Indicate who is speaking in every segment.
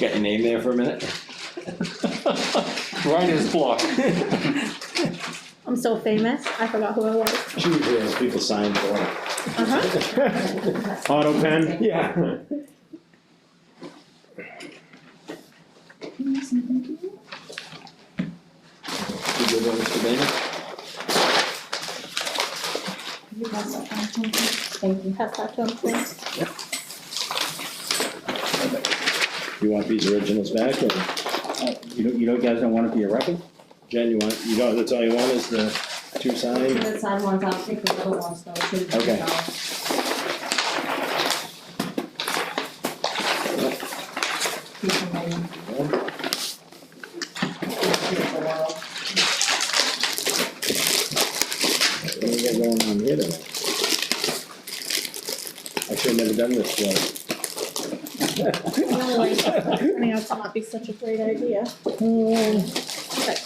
Speaker 1: Got your name there for a minute?
Speaker 2: Writer's block.
Speaker 3: I'm so famous, I forgot who I was.
Speaker 1: Usually those people sign for it.
Speaker 3: Uh-huh.
Speaker 2: Auto pen?
Speaker 1: Yeah. You good one, Mr. Bennett?
Speaker 3: Thank you. Pass that to him, please.
Speaker 1: You want these originals back or
Speaker 4: You don't, you don't, guys don't want it to be a record?
Speaker 1: Jen, you want, you don't, that's all you want is the two signed?
Speaker 5: The side ones, I'll take the little ones though, too.
Speaker 1: Okay.
Speaker 5: Keep them in. Keep them all.
Speaker 1: What do we got going on here today? I should have never done this, well,
Speaker 3: No, like, I mean, that's not be such a great idea. Mm. That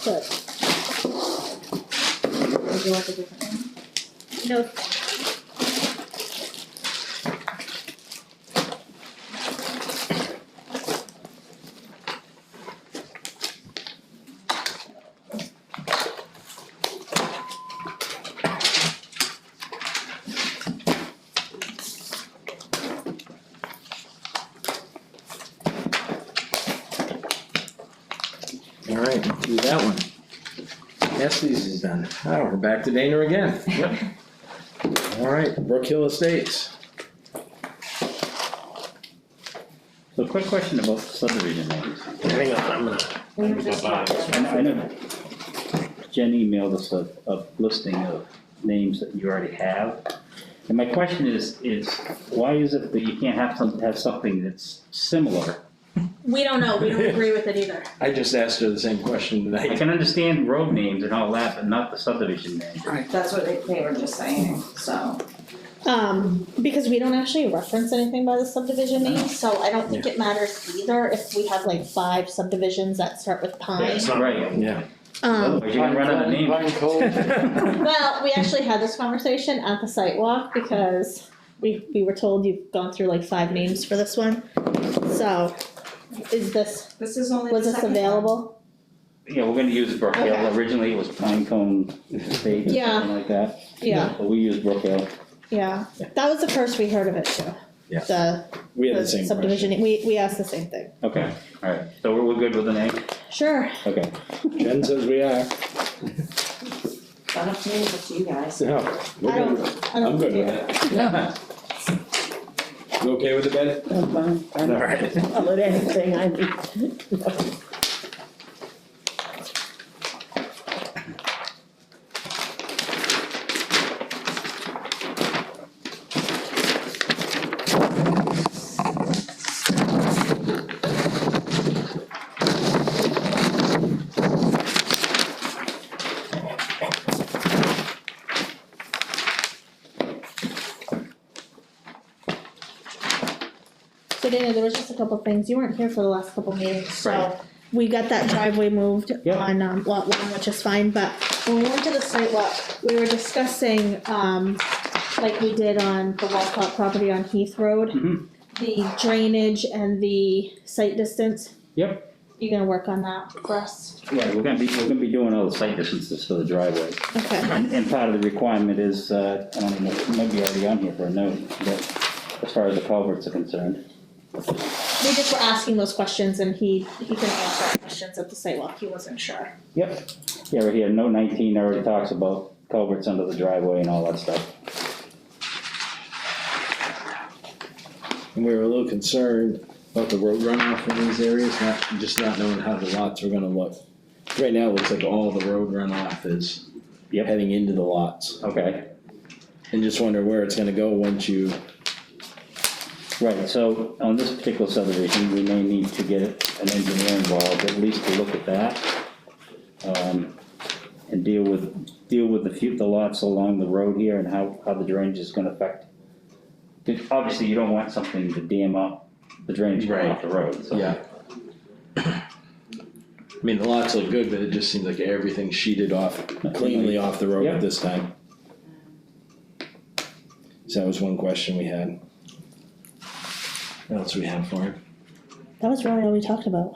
Speaker 3: could.
Speaker 5: Would you like a different one?
Speaker 3: No,
Speaker 1: all right, let's do that one. Estes is done. Oh, we're back to Dana again.
Speaker 2: Yep.
Speaker 1: All right, Brook Hill Estates.
Speaker 4: So quick question about subdivision names.
Speaker 1: Hang on, I'm gonna.
Speaker 5: We were just talking about
Speaker 4: I know Jen emailed us a, a listing of names that you already have. And my question is, is why is it that you can't have some, have something that's similar?
Speaker 3: we don't know, we don't agree with it either.
Speaker 1: I just asked her the same question
Speaker 4: I
Speaker 1: tonight.
Speaker 4: can understand road names and all that, but not the subdivision name.
Speaker 5: that. That's what they, they were just saying, so.
Speaker 3: Um, because we don't actually reference anything by the subdivision name, so I don't think it matters either if we have like five subdivisions that start with pine.
Speaker 4: Right,
Speaker 1: Yeah.
Speaker 3: Um,
Speaker 4: otherwise you're gonna run out of names.
Speaker 2: Pine Cove.
Speaker 3: well, we actually had this conversation at the site walk because we, we were told you've gone through like five names for this one. So, is this,
Speaker 5: This is only the
Speaker 3: was this
Speaker 5: second one.
Speaker 3: available?
Speaker 4: Yeah, we're gonna use Brookdale,
Speaker 3: Okay.
Speaker 4: originally it was Pine Cone Estate or
Speaker 3: Yeah.
Speaker 4: something like that.
Speaker 3: Yeah,
Speaker 4: But we use Brookdale.
Speaker 3: yeah, that was the first we heard of it too.
Speaker 1: Yeah.
Speaker 3: The,
Speaker 1: We had
Speaker 3: the
Speaker 1: the same
Speaker 3: subdivision,
Speaker 1: question.
Speaker 3: we, we asked the same thing.
Speaker 4: Okay, alright, so we're, we're good with the name?
Speaker 3: Sure,
Speaker 4: Okay.
Speaker 1: Jen says we are.
Speaker 5: It's not up to me, it's up to you guys.
Speaker 1: No. we're
Speaker 3: I don't-
Speaker 1: good.
Speaker 3: I don't
Speaker 1: I'm good
Speaker 3: think
Speaker 1: with
Speaker 3: we
Speaker 1: that. You okay with it, Ben?
Speaker 6: I'm fine,
Speaker 1: All
Speaker 6: I'm
Speaker 1: right.
Speaker 6: fine with anything I need.
Speaker 3: so Dana, there was just a couple things, you weren't here for the last couple meetings,
Speaker 4: Right.
Speaker 3: so. We got that driveway moved
Speaker 4: Yep.
Speaker 3: on, um, lot one, which is fine, but when we went to the site walk, we were discussing, um, like we did on the Walcott property on Heath Road.
Speaker 4: Mhm.
Speaker 3: The drainage and the site distance.
Speaker 4: Yep.
Speaker 3: You gonna work on that for us?
Speaker 4: Yeah, we're gonna be, we're gonna be doing all the site distances for the driveway.
Speaker 3: Okay,
Speaker 4: And, and part of the requirement is, uh, I don't know, it might be already on here for a note, but as far as the culverts are concerned.
Speaker 3: we just were asking those questions and he, he couldn't answer our questions at the site walk, he wasn't sure.
Speaker 4: Yep. Yeah, right here, note nineteen already talks about culverts under the driveway and all that stuff.
Speaker 1: And we were a little concerned about the road runoff in these areas, not, just not knowing how the lots were gonna look. Right now, it looks like all the road runoff is
Speaker 4: Yep.
Speaker 1: heading into the lots.
Speaker 4: Okay,
Speaker 1: And just wonder where it's gonna go once you,
Speaker 4: right, so on this particular subdivision, we may need to get an engineer involved, at least to look at that. Um, and deal with, deal with the few, the lots along the road here and how, how the drainage is gonna affect. 'cause Obviously, you don't want something to dam up the drainage coming off the road, so.
Speaker 1: yeah. I mean, the lots look good, but it just seems like everything's sheeted off cleanly off the road
Speaker 4: Yeah.
Speaker 1: at this time. So that was one question we had. What else we have for him?
Speaker 3: that was really all we talked about.